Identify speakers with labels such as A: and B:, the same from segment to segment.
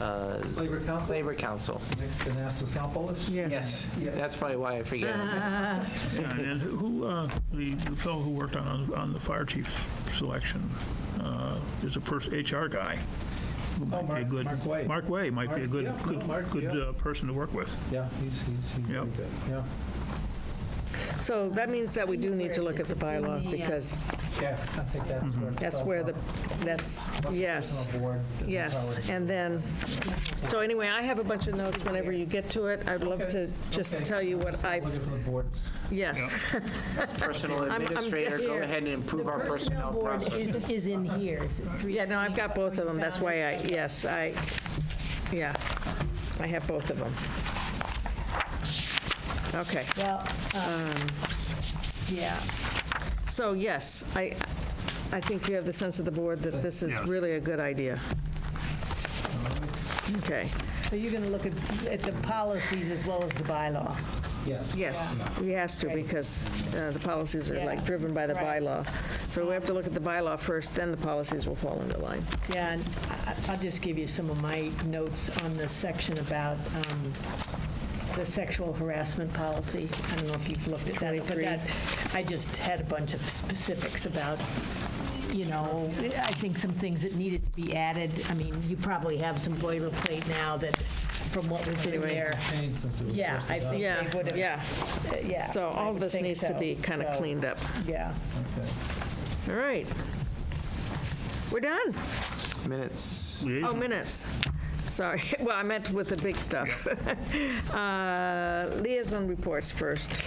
A: uh,
B: Labor Council,
A: Labor Council.
B: Nick Anastasopoulos?
A: Yes, that's probably why I forget.
C: Yeah, And then who, uh, the the fellow who worked on, on the fire chief selection uh, is a person, HR guy. who might be a
B: Oh, Mark-
C: good-
B: Mark Way.
C: Mark Way might be a
B: Mark-
C: good,
B: yeah, no, Mark,
C: good, good
B: yeah.
C: uh, person to work with.
B: Yeah, he's, he's, he's really
C: Yep.
B: good, yeah.
D: So that means that we do need to look at the bylaw, because
B: Yeah, I think that's
C: Mm-hmm.
B: where. it
D: that's
B: starts
D: where
B: on
D: the, that's,
B: the
D: yes,
B: personal board, the
D: yes.
B: powers.
D: And then, so anyway, I have a bunch of notes whenever you get to it. I'd love to
B: Okay,
D: just
B: okay.
D: tell you what I,
B: Looking for the boards.
D: yes,
A: Personal
D: I'm
A: administrator, go
E: here.
A: ahead and improve our personnel
E: The
A: process.
E: personnel board is- is in here. Is it three-
D: yeah, no, I've got both of them, that's why I, yes, I, yeah, I have both of them. Okay.
E: Well, um, yeah,
D: So yes, I, I think we have the sense of the board that this is
C: Yeah.
D: really a good idea. Okay,
E: so you're going to look at, at the policies as well as the bylaw.
B: Yes.
D: yes, we has to because uh, the policies are like
E: Yeah,
D: driven by the
E: right.
D: bylaw. So we have to look at the bylaw first, then the policies will fall into line.
E: Yeah, and I- I- I'll just give you some of my notes on the section about um, the sexual harassment policy. I don't know if you've looked at that, but that, I just had a bunch of specifics about, you know, I think some things that needed to be added. I mean, you probably have some boilerplate now that, from what was in there.
B: Changed since it was
E: Yeah,
B: first
E: I
B: adopted.
E: think
D: Yeah,
E: they would have,
D: yeah,
E: yeah.
D: so
E: I
D: all of
E: would
D: this
E: think
D: needs to
E: so.
D: be kind of
E: So,
D: cleaned up.
E: Yeah.
B: Okay.
D: All right. We're done.
A: Minutes.
D: Oh,
C: Liaison.
D: minutes. Sorry, well, I meant with the big stuff. Uh, Liaison reports first.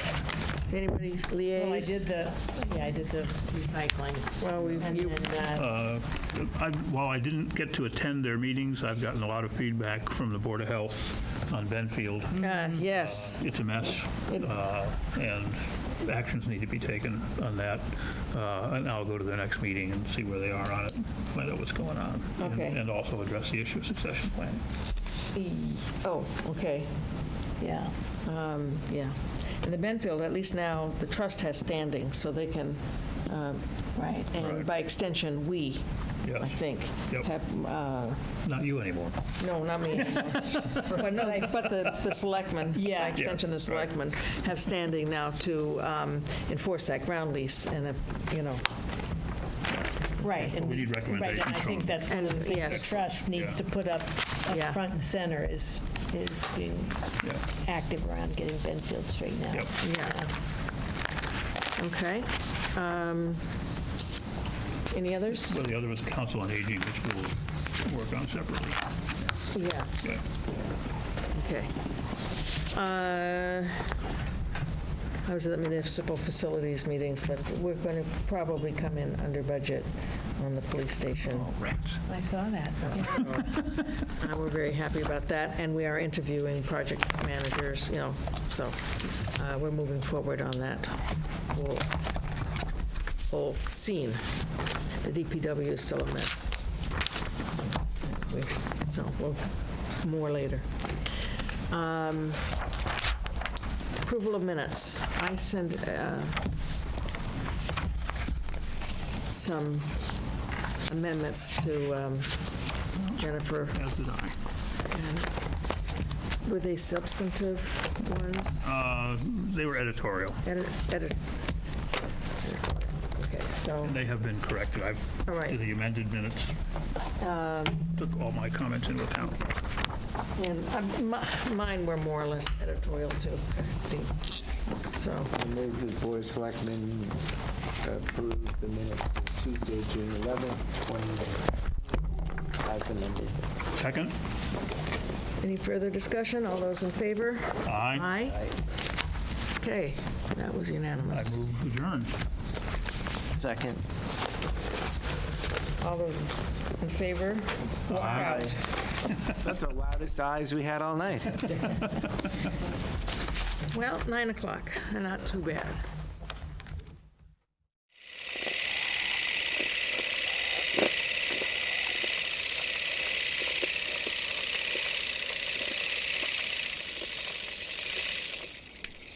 D: Anybody liaise?
E: Well, I did the, yeah, I did the recycling.
D: Well, we-
E: And
D: you-
E: then, uh,
C: I- While I didn't get to attend their meetings, I've gotten a lot of feedback from the Board of Health on Benfield.
D: Uh, Yes,
C: It's a mess, uh, and actions need to be taken on that. Uh, And I'll go to the next meeting and see where they are on it, find out what's going on. and-
D: Okay.
C: And also address the issue of succession planning.
D: oh, okay,
E: yeah.
D: yeah. In the Benfield, at least now, the trust has standing, so they can, um,
E: Right.
D: and
C: Right.
D: by extension, we, I
C: Yes.
D: think,
C: Yep.
D: have, uh,
C: Not you anymore.
D: no, not me. But no, but the the selectmen, by
E: Yeah.
D: extension, the
C: Yes, right.
D: selectmen have standing now to um, enforce that ground lease and, uh, you know,
E: Right. and-
C: We need
E: right,
C: recommendations
E: And I think
C: from-
E: that's one of
D: And,
E: the things
D: yes.
E: the trust needs to
C: Yeah.
E: put up,
D: Yeah.
E: up front and center is, is being
C: Yeah.
E: active around getting Benfield straightened out.
C: Yep.
D: yeah. Okay. Um, Any others?
C: Well, the other was Council on Aging, which we'll work on separately.
D: Yeah.
C: Yeah.
D: Okay. Uh, I was at the municipal facilities meetings, but we're going to probably come in under budget on the police station.
C: Rats.
E: I saw that.
D: Uh, We're very happy about that, and we are interviewing project managers, you know, so uh, we're moving forward on that whole- whole scene. The DPW is still a mess. So, we'll, more later. Um, Approval of minutes. I sent uh, some amendments to um, Jennifer
C: As did I.
D: were they substantive ones?
C: Uh, They were editorial.
D: Edit, edit. Okay, so,
C: They have been corrected. I've,
D: All right. Um.
C: the amended minutes took all my comments into account.
D: and um, mi- mine were more or less editorial too, I think. so,
F: I move the Board of Selectmen approve the minutes of Tuesday, June 11th, 2020, as amended.
C: Second?
D: any further discussion? All those in favor?
C: Aye.
D: Aye? Okay, that was
C: I
D: unanimous.
C: move adjourned.
A: Second.
D: All those in favor?
C: Aye.
A: That's the loudest eyes we had all night.
D: Well, 9 o'clock, not too bad.